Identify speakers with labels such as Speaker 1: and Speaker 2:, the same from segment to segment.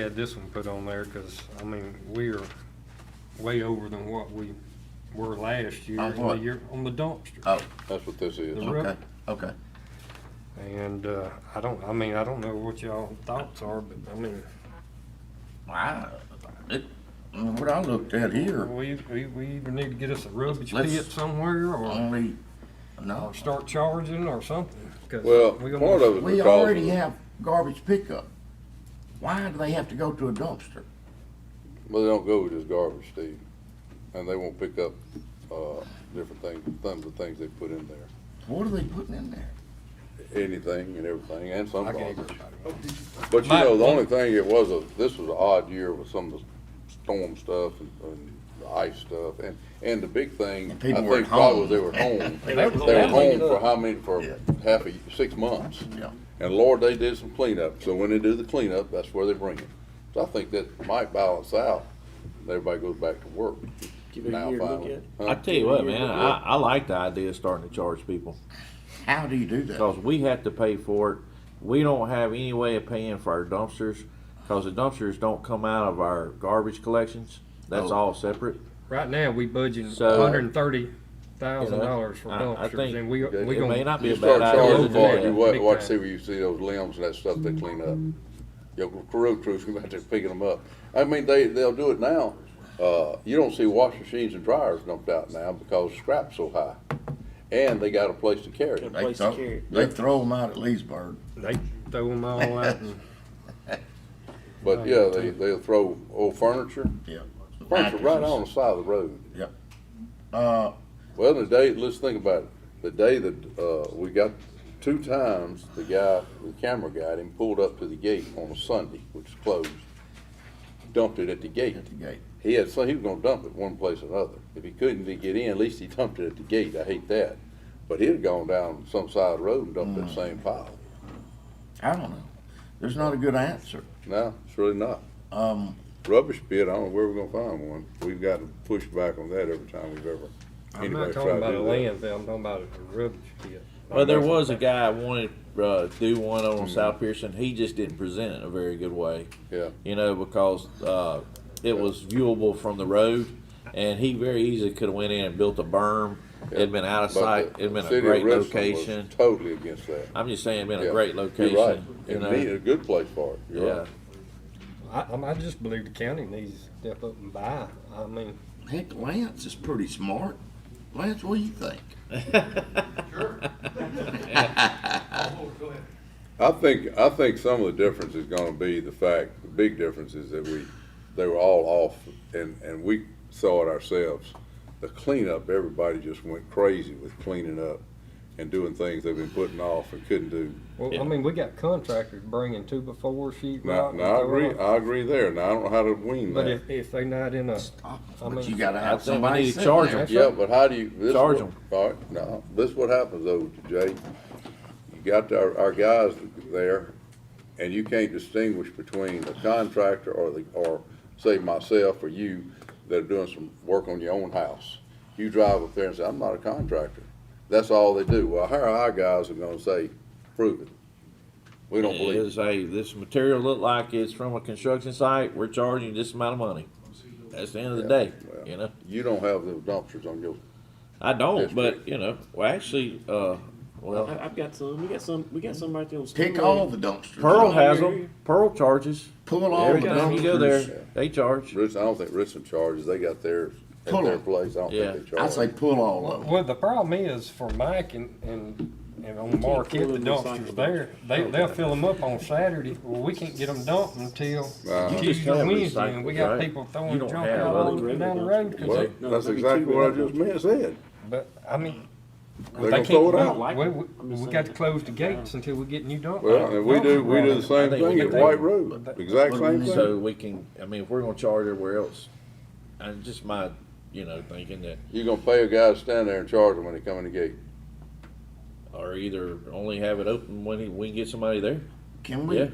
Speaker 1: had this one put on there, cause, I mean, we are way over than what we were last year.
Speaker 2: On
Speaker 1: and the
Speaker 2: what?
Speaker 1: year- On the dumpster.
Speaker 2: Oh,
Speaker 3: That's what this is.
Speaker 1: The
Speaker 2: okay,
Speaker 1: rubber.
Speaker 2: okay.
Speaker 1: And, uh, I don't, I mean, I don't know what y'all thoughts are, but, I mean,
Speaker 2: I, it, what I looked at here,
Speaker 1: we, we, we either need to get us a rubbish
Speaker 2: Let's-
Speaker 1: pit somewhere, or,
Speaker 2: only, no,
Speaker 1: or start charging or something. 'cause
Speaker 3: Well,
Speaker 1: we gonna-
Speaker 3: part of it
Speaker 2: we
Speaker 3: because
Speaker 2: already have garbage pickup. Why do they have to go to a dumpster?
Speaker 3: Well, they don't go with just garbage, Steve, and they won't pick up uh, different things, some of the things they put in there,
Speaker 2: What are they putting in there?
Speaker 3: anything and everything, and some
Speaker 1: I gave
Speaker 3: garbage.
Speaker 1: everybody.
Speaker 3: But you
Speaker 1: My-
Speaker 3: know, the only thing it was a this was an odd year with some of the storm stuff and, and the ice stuff, and and the big thing I
Speaker 2: And people were
Speaker 3: think
Speaker 2: at
Speaker 3: probably
Speaker 2: home.
Speaker 3: they were home.
Speaker 1: They
Speaker 3: they
Speaker 1: were-
Speaker 3: were
Speaker 1: they were
Speaker 3: home
Speaker 1: cleaning
Speaker 3: for
Speaker 1: up.
Speaker 3: how many for
Speaker 2: Yeah.
Speaker 3: half a six months.
Speaker 2: Yeah.
Speaker 3: And Lord, they did some cleanup, so when they do the cleanup, that's where they bring it. So I think that might balance out, and everybody goes back to work.
Speaker 4: Give it a
Speaker 3: now
Speaker 4: year to look
Speaker 3: finally.
Speaker 4: at.
Speaker 3: Huh?
Speaker 5: I tell you what, man, I, I like the idea of starting to charge people,
Speaker 2: How do you do that?
Speaker 5: cause we have to pay for it. We don't have any way of paying for our dumpsters, cause the dumpsters don't come out of our garbage collections. That's
Speaker 2: Oh.
Speaker 5: all separate.
Speaker 1: Right now, we budgeting
Speaker 5: So-
Speaker 1: hundred and thirty thousand dollars for
Speaker 5: I- I
Speaker 1: dumpsters,
Speaker 5: think
Speaker 1: and we, we
Speaker 5: It may
Speaker 1: gonna,
Speaker 5: not be
Speaker 3: You
Speaker 5: a
Speaker 3: start
Speaker 5: bad idea to
Speaker 3: charging
Speaker 5: do
Speaker 3: for it, you
Speaker 5: that.
Speaker 3: wa-
Speaker 1: Big
Speaker 3: watch,
Speaker 1: time.
Speaker 3: see where you see those limbs and that stuff they clean up. Your road crews come out there picking them up. I mean, they, they'll do it now. Uh, you don't see wash machines and dryers dumped out now because scrap's so high. And they got a place to carry it.
Speaker 2: They
Speaker 4: Place to carry
Speaker 2: throw, they
Speaker 4: it.
Speaker 2: throw them out at Leesburg.
Speaker 1: they throw them all out and
Speaker 3: But yeah, they, they'll throw old furniture,
Speaker 2: Yeah.
Speaker 3: furniture right on the side of the road.
Speaker 2: Yep. Uh,
Speaker 3: Well, the day, let's think about it. The day that, uh, we got, two times, the guy, the camera guy, him pulled up to the gate on a Sunday, which is closed, dumped it at the gate.
Speaker 2: at the gate.
Speaker 3: He had, so he was gonna dump it one place or another. If he couldn't get in, at least he dumped it at the gate. I hate that. But he'd have gone down some side of the road and dumped
Speaker 1: Mm.
Speaker 3: that same pile.
Speaker 2: I don't know. There's not a good answer.
Speaker 3: No, it's really not.
Speaker 2: Um,
Speaker 3: Rubbish pit, I don't know where we're gonna find one. We've got to push back on that every time we've ever.
Speaker 1: I'm
Speaker 3: anybody's
Speaker 1: not
Speaker 3: tried
Speaker 1: talking
Speaker 3: to
Speaker 1: about a
Speaker 3: do that.
Speaker 1: landfill, I'm talking about a rubbish pit.
Speaker 5: Well, there was a guy wanted, uh, do one on
Speaker 3: Mm.
Speaker 5: South Pearson, he just didn't present it in a very good way.
Speaker 3: Yeah.
Speaker 5: you know, because uh, it was viewable from the road, and he very easily could have went in and built a berm. It'd been out of
Speaker 3: But
Speaker 5: sight.
Speaker 3: the
Speaker 5: It'd been
Speaker 3: city
Speaker 5: a
Speaker 3: of
Speaker 5: great
Speaker 3: Richland was
Speaker 5: location.
Speaker 3: Totally against that.
Speaker 5: I'm just saying, it'd been
Speaker 3: Yeah,
Speaker 5: a great
Speaker 3: You're right.
Speaker 5: location. You
Speaker 3: It'd
Speaker 5: know,
Speaker 3: be a good place for it. You're
Speaker 5: yeah.
Speaker 3: right.
Speaker 1: I, I mean, I just believe the county needs to step up and buy. I mean,
Speaker 2: heck, Lance is pretty smart. Lance, what do you think?
Speaker 3: I think, I think some of the difference is gonna be the fact, the big difference is that we, they were all off and, and we saw it ourselves. The cleanup, everybody just went crazy with cleaning up and doing things they've been putting off and couldn't do.
Speaker 1: well, I
Speaker 5: Yeah.
Speaker 1: mean, we got contractors bringing two before sheet
Speaker 3: Now,
Speaker 1: rock.
Speaker 3: now I agree, I agree there. Now, I don't know how to wean
Speaker 1: But
Speaker 3: that.
Speaker 1: if, if they not in a, I
Speaker 2: But
Speaker 1: mean-
Speaker 2: you gotta
Speaker 5: I
Speaker 2: have
Speaker 5: think we
Speaker 2: somebody
Speaker 5: need to
Speaker 2: sitting
Speaker 5: charge
Speaker 2: there.
Speaker 5: them.
Speaker 3: Yeah, but how do you? this is
Speaker 5: Charge
Speaker 3: what-
Speaker 5: 'em.
Speaker 3: All right, no, this is what happens though, Jay. You got our, our guys there, and you can't distinguish between the contractor or the, or say myself or you that are doing some work on your own house. You drive up there and say, I'm not a contractor. That's all they do. Well, how are our guys are gonna say, prove it? We don't believe it.
Speaker 5: Is hey, this material look like it's from a construction site. We're charging this amount of money. That's the end of the day.
Speaker 3: Well,
Speaker 5: You know,
Speaker 3: You don't have the dumpsters on your,
Speaker 5: I don't,
Speaker 3: That's
Speaker 5: but
Speaker 3: right.
Speaker 5: you know, well, actually, uh, well,
Speaker 4: I, I've got some. We got some. We got some right there on.
Speaker 2: Hmm? Pick
Speaker 4: Stingray.
Speaker 2: all the dumpsters.
Speaker 5: Pearl
Speaker 4: Right
Speaker 5: has
Speaker 4: here.
Speaker 5: them. Pearl charges.
Speaker 2: Pull all
Speaker 5: Every
Speaker 2: the
Speaker 5: time you go
Speaker 2: dumpsters.
Speaker 5: there, they charge.
Speaker 3: Ritz, I don't think Richland charges. They got theirs at
Speaker 2: Pull
Speaker 3: their
Speaker 2: 'em.
Speaker 3: place. I don't
Speaker 5: Yeah.
Speaker 3: think they charge.
Speaker 2: I say pull all of them.
Speaker 1: well, the problem is for Mike and, and, and on Marquette,
Speaker 4: pull
Speaker 1: the
Speaker 4: in
Speaker 1: dumpsters
Speaker 4: recyclables.
Speaker 1: there, they, they'll fill them up on Saturday. Well, we can't get them dumped until
Speaker 3: Uh-huh.
Speaker 5: You just
Speaker 1: Tuesday,
Speaker 5: have
Speaker 1: Wednesday, and we got
Speaker 5: recyclables, right?
Speaker 1: people
Speaker 5: You
Speaker 1: throwing
Speaker 5: don't
Speaker 1: junk
Speaker 5: have
Speaker 1: out
Speaker 4: other
Speaker 1: all
Speaker 4: regular
Speaker 1: down the road. 'cause
Speaker 3: Well,
Speaker 1: they-
Speaker 4: No,
Speaker 3: that's
Speaker 4: that'd be
Speaker 3: exactly
Speaker 4: two
Speaker 3: what I
Speaker 4: wheelers.
Speaker 3: just meant, said.
Speaker 1: But, I mean,
Speaker 3: They're
Speaker 1: they
Speaker 3: gonna throw
Speaker 1: can't,
Speaker 3: it
Speaker 4: I
Speaker 3: out.
Speaker 4: don't like
Speaker 1: we,
Speaker 4: it.
Speaker 1: we, we got to close the gates until we get new dump.
Speaker 3: Well, and we do, we do the same
Speaker 5: I think we
Speaker 3: thing
Speaker 5: could
Speaker 3: at
Speaker 5: do
Speaker 3: White
Speaker 5: it.
Speaker 3: Road, the exact same
Speaker 5: So
Speaker 3: thing.
Speaker 5: we can, I mean, if we're gonna charge everywhere else, and just my, you know, thinking that,
Speaker 3: You're gonna pay a guy to stand there and charge him when they come in the gate.
Speaker 5: or either only have it open when he- we can get somebody there.
Speaker 2: Can we,
Speaker 5: Yeah.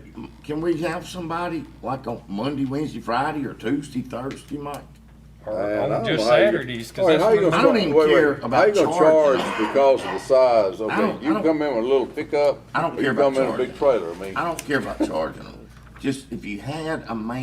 Speaker 2: can we have somebody like on Monday, Wednesday, Friday, or Tuesday, Thursday, Mike?
Speaker 1: Or
Speaker 3: Man, I
Speaker 1: on
Speaker 3: don't
Speaker 1: just
Speaker 3: know how you-
Speaker 1: Saturdays,
Speaker 3: All
Speaker 1: cause
Speaker 3: right,
Speaker 1: that's
Speaker 3: how you
Speaker 1: when.
Speaker 3: gonna
Speaker 2: I don't
Speaker 3: charge-
Speaker 2: even
Speaker 3: wait, wait,
Speaker 2: care
Speaker 3: How
Speaker 2: about
Speaker 3: you gonna
Speaker 2: charging.
Speaker 3: charge because of the size?
Speaker 2: I
Speaker 3: Okay,
Speaker 2: don't- I
Speaker 3: you
Speaker 2: don't-
Speaker 3: come in with a little pickup,
Speaker 2: I don't
Speaker 3: or you
Speaker 2: care
Speaker 3: come
Speaker 2: about
Speaker 3: in with a big trailer, I mean.
Speaker 2: I don't care about charging them. just, if you had a man